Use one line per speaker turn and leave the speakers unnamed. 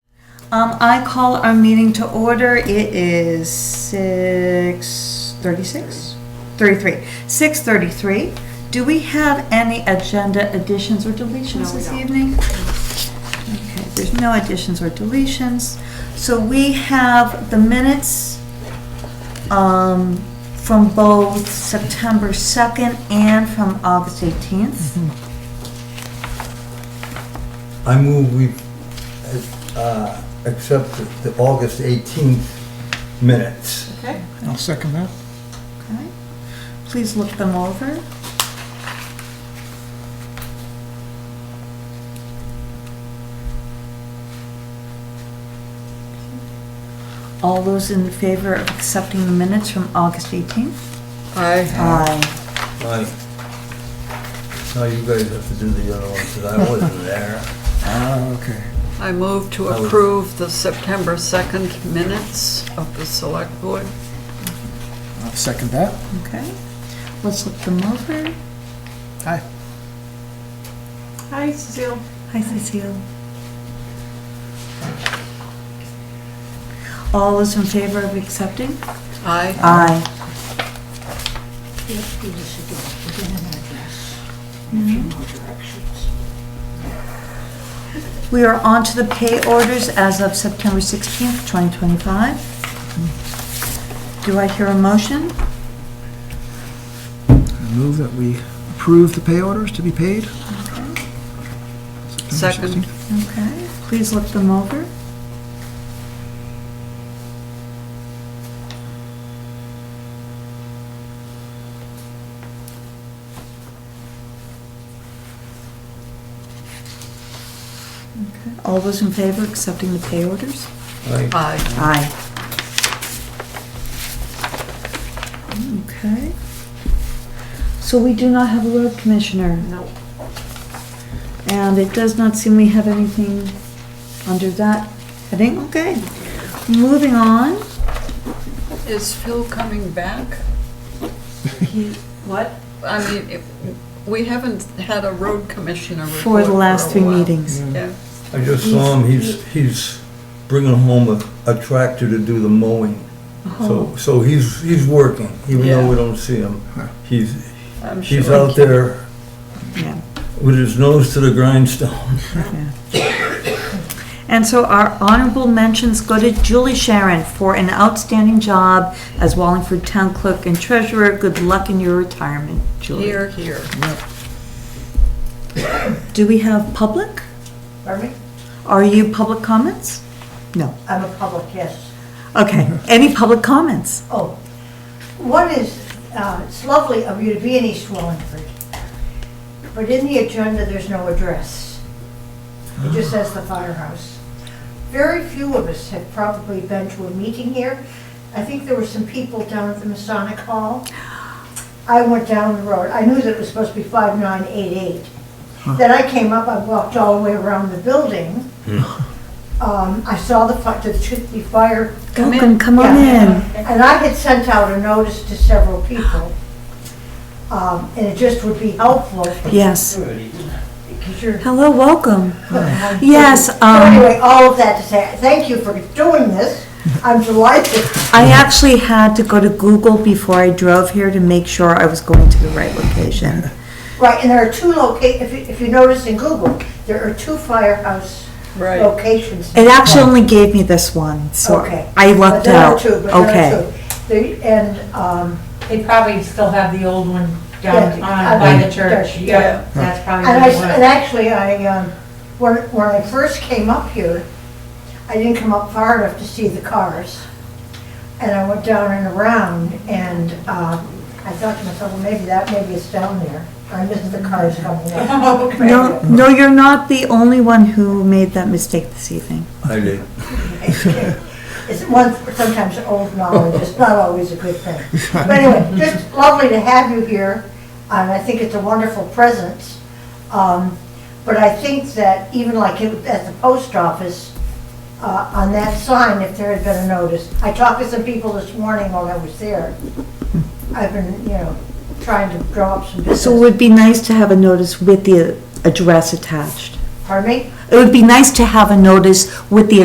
Um, I call our meeting to order. It is six thirty-six? Thirty-three. Six thirty-three. Do we have any agenda additions or deletions
No, we
this
don't.
evening? Okay, there's no additions or deletions. So we have the minutes, um, from both September second and from August eighteenth.
I move we uh, accept the- the August 18th minutes.
Okay.
I'll second that.
Okay, please look them over. All those in favor of accepting the minutes from August 18th? Aye.
Aye. Now you guys have to do the other ones, because I wasn't there.
Ah, okay.
I move to
That was-
approve the September 2nd minutes of the select board.
I'll second that.
Okay, let's look them over.
Aye.
Hi, Cecile.
Hi Cecile. All those in favor of accepting?
Aye.
Aye.
Yes, we should do it within an address, and a few more directions.
We are on to the pay orders as of September 16th, 2025. Do I hear a motion?
I move that we approve the pay orders to be paid. September
Second.
16th.
Okay, please look them over. Okay, All those in favor of accepting the pay orders?
Aye.
Aye.
Aye. Okay. So we do not have a road commissioner,
No.
and it does not seem we have anything under that heading. Okay. Moving on.
Is Phil coming back?
He-
What? I mean, if- we haven't had a road commissioner report
For the last
a
three
while.
meetings.
Yeah.
I just saw him, he's, he's bringing home a- a tractor to do the mowing.
Uh-huh.
So, so he's, he's working, even though we don't see him. He's,
I'm
he's
sure.
out there
Yeah.
with his nose to the grindstone.
And so our honorable mentions go to Julie Sharon for an outstanding job as Wallingford Town Clerk and Treasurer. Good luck in your retirement, Julie.
Here, here.
Do we have public?
Pardon me?
Are you public comments? No.
I'm a public, yes.
Okay, any public comments?
Oh, one is, uh, it's lovely of you to be in East Wallingford, but in the agenda, there's no address. It just says the firehouse. Very few of us have probably been to a meeting here. I think there were some people down at the Masonic Hall. I went down the road, I knew that it was supposed to be 5988. Then I came up, I walked all the way around the building. Um, I saw the fi- the the fire
Come in.
Welcome, come on in.
yeah. And I had sent out a notice to several people. Um, and it just would be helpful.
Yes.
Because you're.
Hello, welcome. Yes,
So
um,
Anyway, all of that to say, thank you for doing this. I'm delighted.
I actually had to go to Google before I drove here to make sure I was going to the right location.
Right, and there are two loca, if you, if you notice in Google, there are two firehouse
Right.
locations.
It actually only gave me this one, so
Okay.
I
But
lucked
there are
out.
two, but there are
Okay,
two. They- And, um,
They probably still have the old one
Yeah,
down
I
on by
mean,
the church,
yeah.
yeah, that's probably
And I, s-
the
and
one.
actually, I, um, when, when I first came up here, I didn't come up far enough to see the cars. And I went down and around and, um, I thought to myself, well, maybe that, maybe it's down there. I missed the cars coming up.
no, no, you're not the only one who made that mistake this evening.
I did.
It's one, sometimes old knowledge, it's not always a good thing. But anyway, just lovely to have you here, and I think it's a wonderful presence. Um, But I think that even like it- at the post office, uh, on that sign, if there had been a notice, I talked to some people this morning while I was there. I've been, you know, trying to draw up
So
some
it
business.
would be nice to have a notice with the address attached.
Pardon me?
It would be nice to have a notice with the